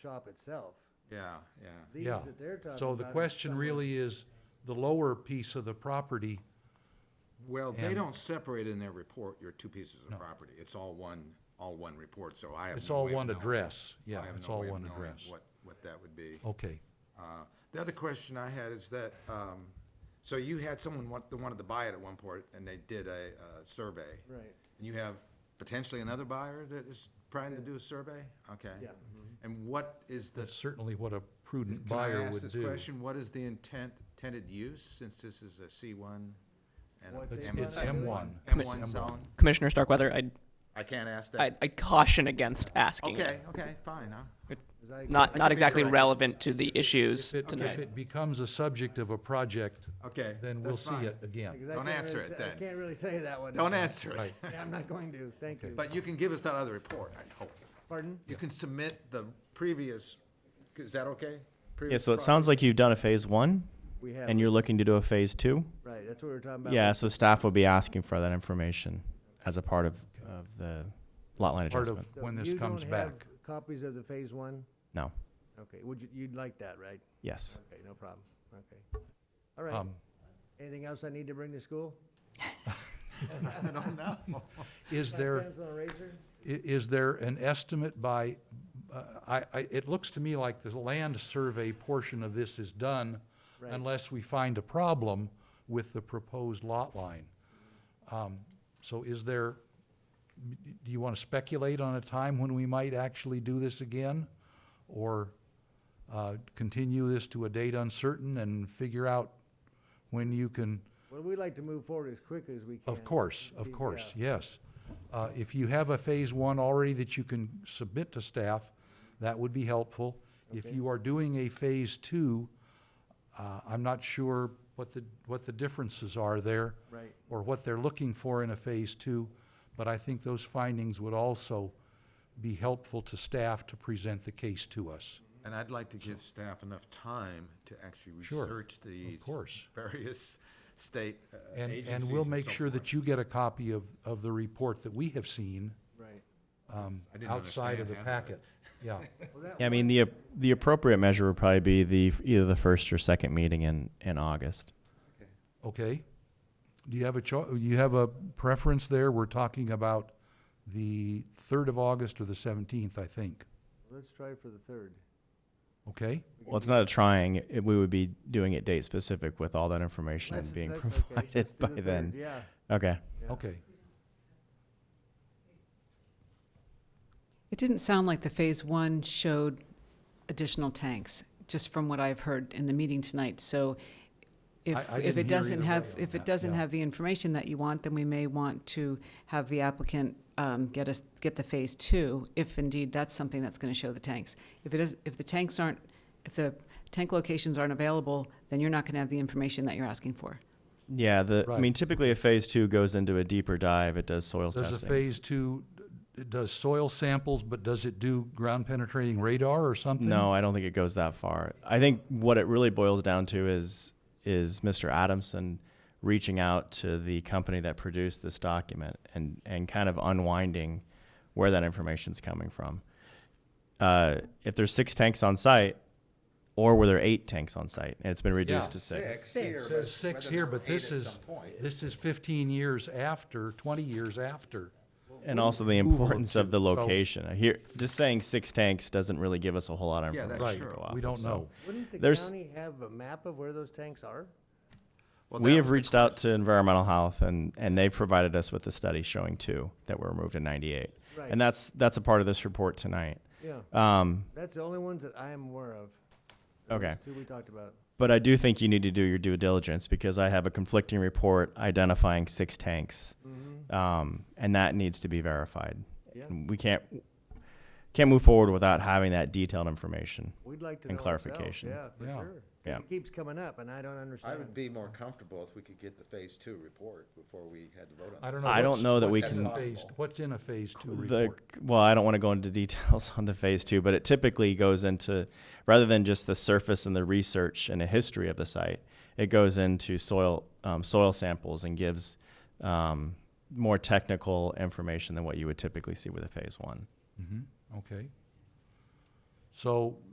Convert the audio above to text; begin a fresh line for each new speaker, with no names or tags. shop itself.
Yeah, yeah.
These
Yeah.
that they're talking about.
So the
are
question
somewhere-
really is, the lower piece of the property,
Well, they
And-
don't separate in their report your two pieces of property. It's all one, all one report, so I have
it's
no
all
way of
one
knowing.
address,
I
yeah,
have
it's
no
all
way of
one
knowing
address.
What, what that would be.
Okay,
Uh, The other question I had is that, um, so you had someone want, that wanted to buy it at one point, and they did a, uh survey.
Right.
And you have potentially another buyer that is trying to do a survey? Okay.
Yeah.
And what is the,
that's certainly what a prudent
can I
buyer
ask
would
this
do.
question? What is the intent, intended use, since this is a C one? and a
What
It's,
they
M-
wanna
it's
do.
M one.
M one zone?
Commissioner Starkweather, I'd,
I can't ask
I'd,
that.
I'd caution against asking it.
Okay, okay, fine, huh?
'Cause I-
Not,
can
not
be
exactly
corrected.
relevant to the issues
If it, if
tonight.
it becomes a subject of a project,
Okay,
then we'll
that's
see
fine.
it again.
because I
Don't
can't
answer
really
it
t-
then.
I can't really tell you that one.
Don't
now.
answer it.
Yeah, I'm not going to, thank you.
But you can give us that other report, I hope.
Pardon?
You can submit the previous, is that okay?
Yeah,
Previous
so it sounds like you've done a phase one,
We have,
and you're looking to do a phase two?
right, that's what we were talking about.
Yeah, so staff will be asking for that information as a part of, of the lot line
Part of
adjustment.
So
when this
you
comes
don't have
back.
Copies of the phase one?
No,
Okay, would you, you'd like that, right?
yes.
Okay, no problem, okay. All right,
Um,
anything else I need to bring to school?
product? I don't know.
Is there?
Pencil and eraser?
I- is there an estimate by, uh, I, I, it looks to me like the land survey portion of this is done
Right.
unless we find a problem with the proposed lot line. Um, So is there, do you want to speculate on a time when we might actually do this again? Or, uh, continue this to a date uncertain and figure out when you can
Well, we like to move forward as quickly as we can.
of course,
Yeah.
of course, yes. Uh, If you have a phase one already that you can submit to staff, that would be helpful. If you are doing a phase two, uh, I'm not sure what the, what the differences are there.
Right.
Or what they're looking for in a phase two, but I think those findings would also be helpful to staff to present the case to us.
And I'd like to give staff enough time to actually
Sure,
research these
course.
various state uh,
And,
agencies
and we'll make
so
sure
forth.
that you get a copy of, of the report that we have seen
Right.
um,
I didn't
outside
understand
of the
half of
packet.
it.
Yeah,
Well, that
Yeah, I mean, the, ap- the appropriate measure would probably be the, either the first or second meeting in, in August.
Okay. Do you have a cho, you have a preference there? We're talking about the third of August or the seventeenth, I think,
Let's try for the third.
okay?
Well, it's not a trying, it- we would be doing it date specific with all that information
That's-
being
that's okay.
provided
Let's do
by
the third,
then.
Yeah,
Okay.
Yeah.
Okay,
It didn't sound like the phase one showed additional tanks, just from what I've heard in the meeting tonight. So
I- I
if,
didn't
if
hear
it doesn't
either
have,
way on
if
that,
it doesn't
yeah.
have the information that you want, then we may want to have the applicant um, get us, get the phase two, if indeed that's something that's going to show the tanks. If it is, if the tanks aren't, if the tank locations aren't available, then you're not going to have the information that you're asking for.
Yeah, the, I
Right.
mean, typically a phase two goes into a deeper dive, it does soils
does
testing.
a phase two, it does soil samples, but does it do ground penetrating radar or something?
No, I don't think it goes that far. I think what it really boils down to is is Mr. Adamson reaching out to the company that produced this document and and kind of unwinding where that information's coming from. Uh, if there's six tanks on site, or were there eight tanks on site, and it's been reduced
Yeah.
to six.
here,
It
but
says six
whether
here,
there
but
were eight
this
at
is,
some point.
this is fifteen years after, twenty years after.
and also the
Approval of
importance of the
two, so-
location. I hear just saying six tanks doesn't really give us a whole lot of
Yeah,
information.
that's
Right,
to go off
we
of,
don't
so-
know.
Wouldn't the
There's-
county have a map of where those tanks are?
Well,
we
that
have
was the
reached out to environmental health and, and they've provided us with a study showing two that were removed in 98
Right.
and that's that's a part of this report tonight
Yeah,
um,
that's the only ones that I am aware of. Those
okay
Two we talked about.
but i do think you need to do your due diligence because i have a conflicting report identifying six tanks um, and that needs to be verified
Mm-hmm. Yeah.
And we can't can't move forward without having that detailed information
We'd like to know
And
ourselves.
clarification.
Yeah, for
Yeah.
sure. 'Cause
Yeah.
It keeps coming up and I don't
I
understand.
would be more comfortable if we could get the phase two report before we had to vote on
I don't
this.
know.
I don't
what's-
know that we
what's in
can-
a phase- What's in a phase two
the
report?
well i don't want to go into details on the phase two but it typically goes into rather than just the surface and the research and the history of the site it goes into soil um, soil samples and gives um, more technical information than what you would typically see with a phase one
Mhm, okay. So